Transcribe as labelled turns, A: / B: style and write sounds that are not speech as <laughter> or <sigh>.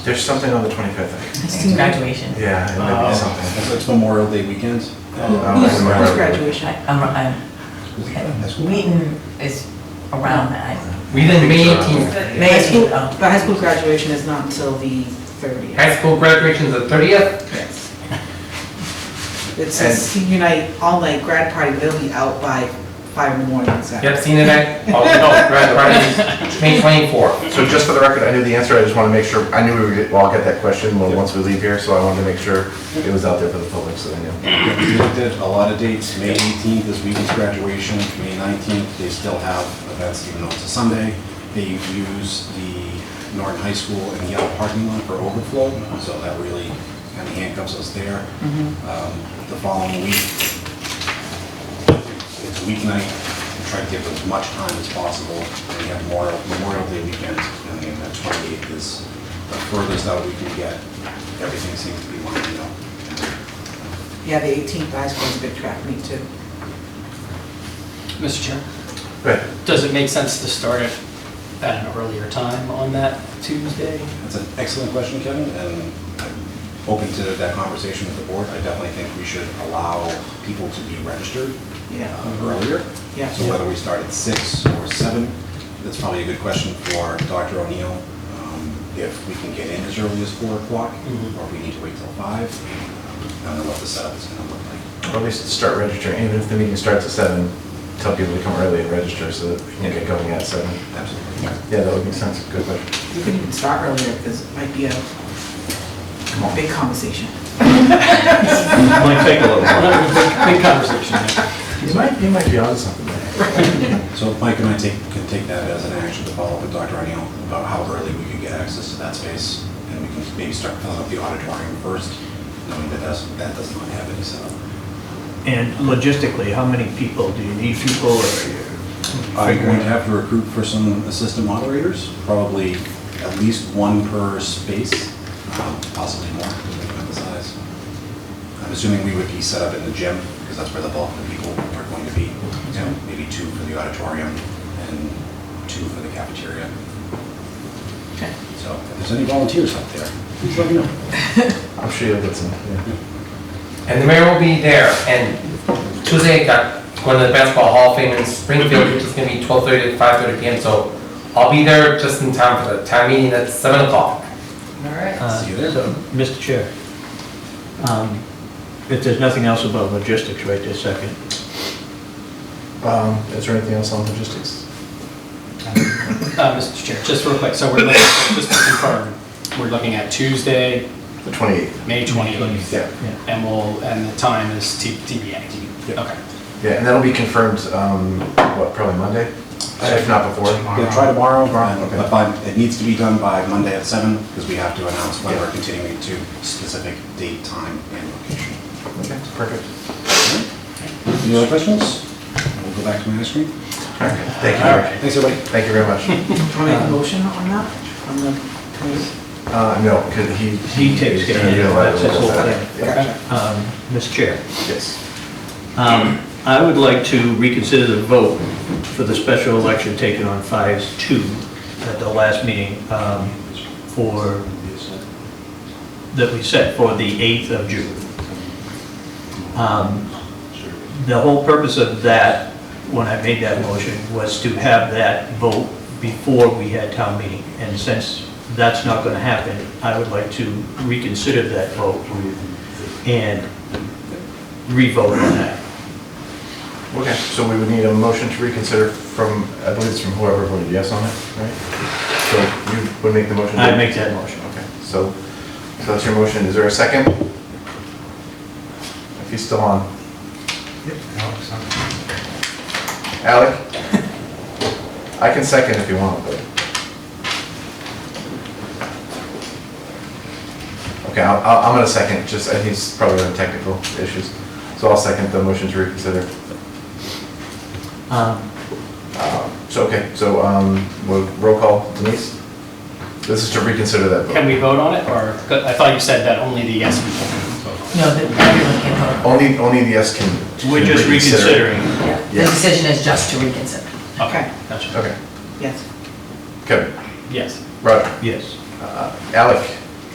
A: There's something on the Oh. 25th.
B: It's graduation.
A: Yeah, it might be something.
C: It's Memorial Day weekend.
A: Oh,
D: Who's-
A: I remember.
D: who's graduation?
B: I- I'm- I'm- Wheaton is around that.
E: We did May
A: Picture up.
E: 18th.
B: May
D: High school,
B: 18th, oh.
D: the high school graduation is not until the thirtieth.
E: High school graduation's the 30th.
D: It's a
A: And-
D: senior night, all night grad party, they'll be out by five in the morning, so.
E: Yep, senior night. Oh, no, grad party is May 24th.
A: So just for the record, I knew the answer, I just want to make sure, I knew we would, get- well, I'll get that question when- once we leave here, so I wanted to make sure it was out there for the public, so they knew.
C: We looked at a lot of dates, May 18th is Wheaton's graduation, May 19th, they still have events even though it's a Sunday. They use the Norton High School and Yale parking lot for overflow, so that really kind of handcuffs us there. Um, The following week, it's weeknight, we try to give as much time as possible, and we have Memorial Memorial Day weekend, and then that 28th is the furthest out we can get. Everything seems to be lining up.
D: Yeah, the eighteenth high school is a big track meet too.
F: Mr. Chair,
A: But
F: does it make sense to start it at an earlier time on that Tuesday?
C: That's an excellent question, Kevin, and I'm open to that conversation with the board. I definitely think we should allow people to be registered
D: Yeah,
C: uh, earlier.
D: Yeah.
C: So whether we start at six or seven, that's probably a good question for Dr. O'Neill. um, If we can get in as early as four o'clock,
F: Mhm.
C: or if we need to wait till five. I don't know what the setup is gonna look like.
A: at least start registering, even if the meeting starts at seven, tell people to come early and register so that we can get going at seven.
C: Absolutely.
A: Yeah, that would make sense, good question.
D: you can even start earlier, because it might be a
A: Come on.
D: big conversation.
A: Might take a little
F: Big conversation. yeah.
A: You might, you might be onto something there.
C: So Mike and I take, can take that as an action to follow up with Dr. O'Neill about how early we can get access to that space, and we can maybe start filling up the auditorium first, knowing that that's, that does not have any setup.
G: And logistically, how many people? Do you need people or?
C: I'm going to have to recruit for some assistant moderators, probably at least one per space, um, possibly more, depending on the size. I'm assuming we would be set up in the gym, because that's where the bulk of the people are going to be. So maybe two for the auditorium and two for the cafeteria.
D: Okay.
C: So if there's any volunteers out there, please let me know.
A: I'm sure you'll get some, yeah.
E: And the mayor will be there. And Tuesday, I got going to the basketball hall of fame in Springfield, which is gonna be 12:30 to 5:30 PM. So I'll be there just in time for the town meeting at 7 o'clock.
D: All
B: um,
D: right.
G: Uh,
C: See you there.
G: so, Mr. Chair, um, if there's nothing else about logistics right this second,
A: Um, is there anything else on logistics?
F: Uh, Mr. Chair, just real quick, so we're looking, just to confirm, we're looking at Tuesday,
A: The 28th.
F: May 28th.
A: Yeah.
G: yeah.
F: And we'll, and the time is T- TBA.
A: Yep.
F: Okay.
A: Yeah, and that'll be confirmed, um, what, probably Monday? If not before.
C: Yeah, try tomorrow, Um,
A: Tomorrow, okay.
C: but by- it needs to be done by Monday at seven, because we have to announce when we're continuing to specific date, time, and location.
A: Okay, perfect.
C: Any other questions? We'll go back to my ice cream.
A: All right, thank you.
F: All right.
C: Thanks, everybody.
A: Thank you very
G: <laughs>
A: much.
D: Do you want to make a motion on that? On the committee?
A: Uh, no, because he.
G: He takes care of it.
A: he's gonna let
G: That's his whole
A: us-
G: thing.
A: Yeah.
G: Um, Mr. Chair,
A: Yes.
G: um, I would like to reconsider the vote for the special election taken on 5-2 at the last meeting um, for, that we set for the 8th of June. Um, The whole purpose of that, when I made that motion, was to have that vote before we had town meeting. And since that's not going to happen, I would like to reconsider that vote and re-vote on that.
A: Okay, so we would need a motion to reconsider from, I believe it's from whoever voted yes on it, right? So you would make the motion?
G: I'd make that motion.
A: Okay, so, so that's your motion. Is there a second? If he's still on. Alec? I can second if you want, but. Okay, I'll- I'll, I'm gonna second, just, I think he's probably on technical issues. So I'll second the motion to reconsider.
G: Um,
A: So, okay, so, um, we'll roll call Denise? This is to reconsider that vote.
F: Can we vote on it, or, I thought you said that only the yes people can vote.
B: No, the- everyone can vote.
A: Only, only the yes can. can
G: We're just
A: reconsider.
G: reconsidering.
B: Yeah. The
A: Yes.
B: decision is just to reconsider.
D: Okay.
F: Gotcha.
A: Okay,
D: Yes.
A: Kevin,
F: Yes.
A: Roger,
G: Yes.
A: uh, Alec,